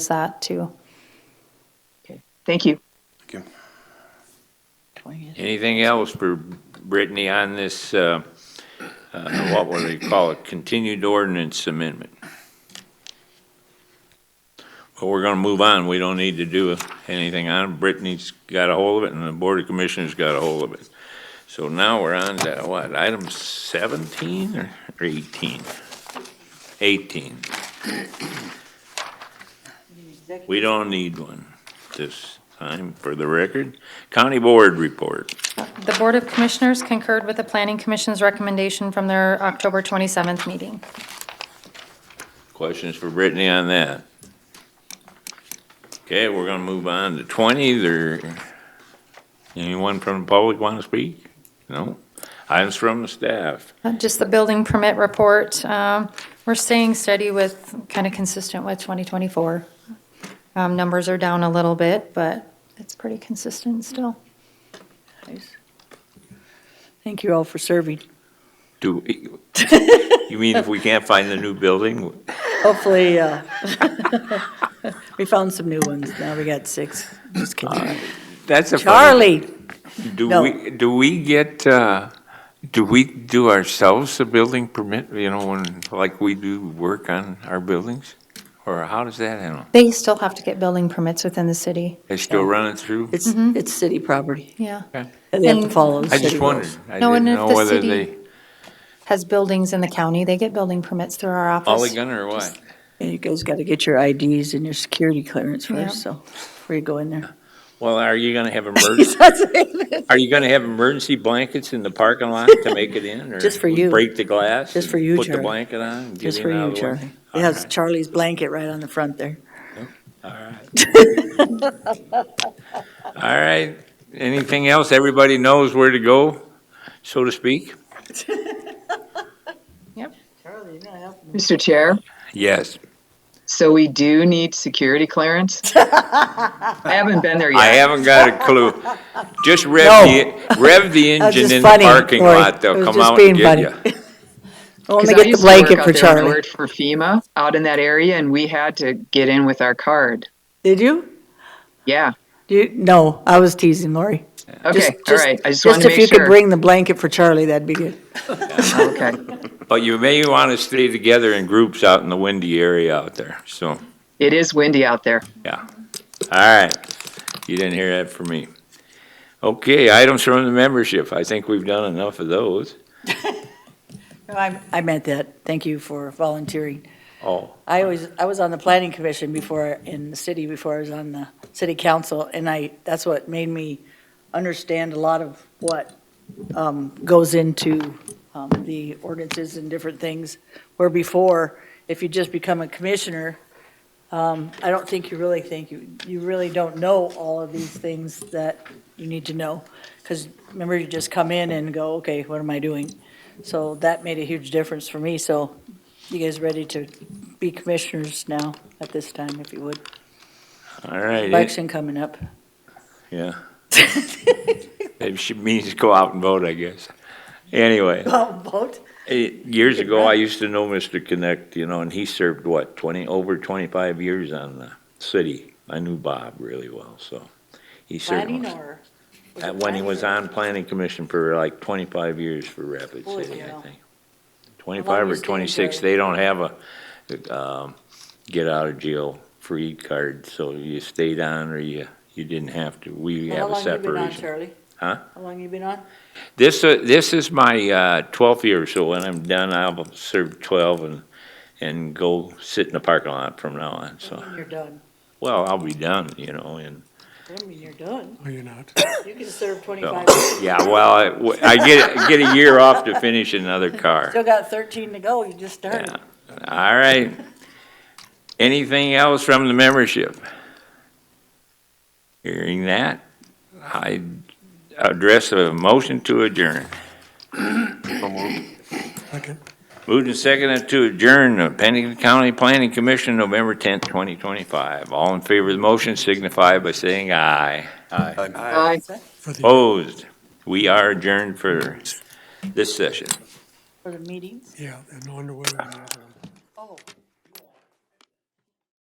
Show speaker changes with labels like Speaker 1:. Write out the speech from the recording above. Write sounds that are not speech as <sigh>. Speaker 1: that too.
Speaker 2: Thank you.
Speaker 3: Thank you.
Speaker 4: Anything else for Brittany on this, uh, uh, what will they call it, continued ordinance amendment? Well, we're going to move on. We don't need to do anything on it. Brittany's got a hold of it, and the Board of Commissioners got a hold of it. So now we're on to, what, item 17 or 18? 18. We don't need one this time, for the record. County Board Report.
Speaker 1: The Board of Commissioners concurred with the Planning Commission's recommendation from their October 27th meeting.
Speaker 4: Questions for Brittany on that? Okay, we're gonna move on to twenty, there, anyone from the public want to speak? No? Items from the staff,
Speaker 1: Uh, Just the building permit report, um, we're staying steady with, kind of consistent with 2024. Um, Numbers are down a little bit, but it's pretty consistent still.
Speaker 5: Thank you all for serving.
Speaker 4: do,
Speaker 5: <laughs>
Speaker 4: we- you mean if we can't find the new building?
Speaker 5: Hopefully, uh, <laughs> we found some new ones. Now we got six. Just kidding.
Speaker 4: That's a. funny-
Speaker 5: Charlie,
Speaker 4: Do
Speaker 5: no.
Speaker 4: we, do we get, uh, do we do ourselves a building permit, you know, when, like we do work on our buildings? Or how does that handle?
Speaker 1: They still have to get building permits within the city.
Speaker 4: They still running through?
Speaker 5: it's,
Speaker 2: Mm-hmm.
Speaker 5: it's city property.
Speaker 1: Yeah.
Speaker 5: and They have to
Speaker 1: And-
Speaker 5: follow the
Speaker 4: I
Speaker 5: city
Speaker 4: just wondered.
Speaker 5: rules.
Speaker 4: I
Speaker 1: No,
Speaker 4: didn't
Speaker 1: and if
Speaker 4: know
Speaker 1: the
Speaker 4: whether
Speaker 1: city
Speaker 4: they.
Speaker 1: Has buildings in the county, they get building permits through our office.
Speaker 4: All gun or what?
Speaker 5: And you guys got to get your IDs and your security clearance
Speaker 1: Yeah.
Speaker 5: first, so before you go in there. <laughs>
Speaker 4: Well, are you gonna have emergency, are you gonna have emergency blankets in the parking lot to make it in? or
Speaker 5: Just for you.
Speaker 4: Break the glass?
Speaker 5: Just for
Speaker 4: and
Speaker 5: you,
Speaker 4: Put the
Speaker 5: Charlie.
Speaker 4: blanket on? and get
Speaker 5: Just
Speaker 4: in
Speaker 5: for
Speaker 4: out
Speaker 5: you,
Speaker 4: of the way?
Speaker 5: Charlie. It has Charlie's blanket right on the front there.
Speaker 4: All right, anything else? Everybody knows where to go, so to speak?
Speaker 2: Mr. Chair,
Speaker 4: Yes.
Speaker 2: so we do need security
Speaker 5: <laughs>
Speaker 2: clearance? I haven't been there
Speaker 4: I
Speaker 2: yet.
Speaker 4: haven't got a clue. Just
Speaker 5: No.
Speaker 4: rev the,
Speaker 5: <laughs>
Speaker 4: rev the
Speaker 5: That was
Speaker 4: engine
Speaker 5: just
Speaker 4: in the
Speaker 5: funny,
Speaker 4: parking
Speaker 5: Lori.
Speaker 4: lot,
Speaker 5: It
Speaker 4: they'll
Speaker 5: was
Speaker 4: come
Speaker 5: just
Speaker 4: out and
Speaker 5: being <laughs>
Speaker 4: get
Speaker 5: funny.
Speaker 4: you.
Speaker 5: Only
Speaker 2: 'Cause I
Speaker 5: get the
Speaker 2: used to work
Speaker 5: blanket
Speaker 2: out
Speaker 5: for
Speaker 2: there and I
Speaker 5: Charlie.
Speaker 2: worked for FEMA out in that area and we had to get in with our card.
Speaker 5: Did you?
Speaker 2: Yeah.
Speaker 5: Do you? No, I was teasing Lori.
Speaker 2: Okay, all
Speaker 5: Just-
Speaker 2: right. I just wanted to
Speaker 5: Just if you
Speaker 2: make
Speaker 5: could
Speaker 2: sure.
Speaker 5: bring the blanket for Charlie, that'd be good.
Speaker 2: Okay.
Speaker 4: But you may wanna stay together in groups out in the windy area out there, so.
Speaker 2: It is windy out there.
Speaker 4: Yeah. All right. You didn't hear that from me. Okay, items from the membership. I think we've done enough of those.
Speaker 5: No, I I meant that. Thank you for volunteering.
Speaker 4: Oh,
Speaker 5: I was, I was on the planning commission before, in the city, before I was on the city council, and I, that's what made me understand a lot of what um, goes into um, the ordinances and different things, where before, if you just become a commissioner, um, I don't think you really think, you, you really don't know all of these things that you need to know. Because remember, you just come in and go, okay, what am I doing? So that made a huge difference for me, so you guys ready to be commissioners now at this time, if you would.
Speaker 4: all right.
Speaker 5: Election coming <laughs> up.
Speaker 4: Yeah. It should- means to go out and vote, I guess. Anyway,
Speaker 5: Oh, Vote?
Speaker 4: eh, years ago, I used to know Mr. Connect, you know, and he served what, 20, over 25 years on the city. I knew Bob really well, so he served.
Speaker 5: Planning
Speaker 4: most-
Speaker 5: or? was
Speaker 4: Uh,
Speaker 5: it
Speaker 4: When he
Speaker 5: planning
Speaker 4: was
Speaker 5: or-
Speaker 4: on planning commission for like 25 years for Rapid
Speaker 5: Holy
Speaker 4: City, I
Speaker 5: cow.
Speaker 4: think. 25
Speaker 5: you
Speaker 4: or
Speaker 5: stayed
Speaker 4: 26,
Speaker 5: there?
Speaker 4: they don't have a um, get out of jail free card, so you stayed on or you, you didn't have to. We
Speaker 5: How
Speaker 4: have a
Speaker 5: long you been on,
Speaker 4: separation.
Speaker 5: Charlie?
Speaker 4: Huh?
Speaker 5: How long you been on?
Speaker 4: This, uh, this is my uh, 12th year, so when I'm done, I'll serve 12 and, and go sit in the parking lot from now on, so.
Speaker 5: You're done.
Speaker 4: Well, I'll be done, you know, and,
Speaker 5: I mean, you're done.
Speaker 6: No, you're not.
Speaker 5: You can serve 25.
Speaker 4: so, yeah, well, I- I get, get a year off to finish another car.
Speaker 5: Still got 13 to go, you just started.
Speaker 4: All right. Anything else from the membership? Hearing that, I address a motion to adjourn.
Speaker 6: Second.
Speaker 4: Moved and seconded to adjourn the Pennington County Planning Commission, November 10th, 2025. All in favor of the motion signify by saying aye.
Speaker 2: Bye.
Speaker 6: For
Speaker 4: Oh.
Speaker 6: the,
Speaker 4: Opposed? We are adjourned for this session.
Speaker 5: For the meetings?
Speaker 6: yeah, and no wonder whether or not.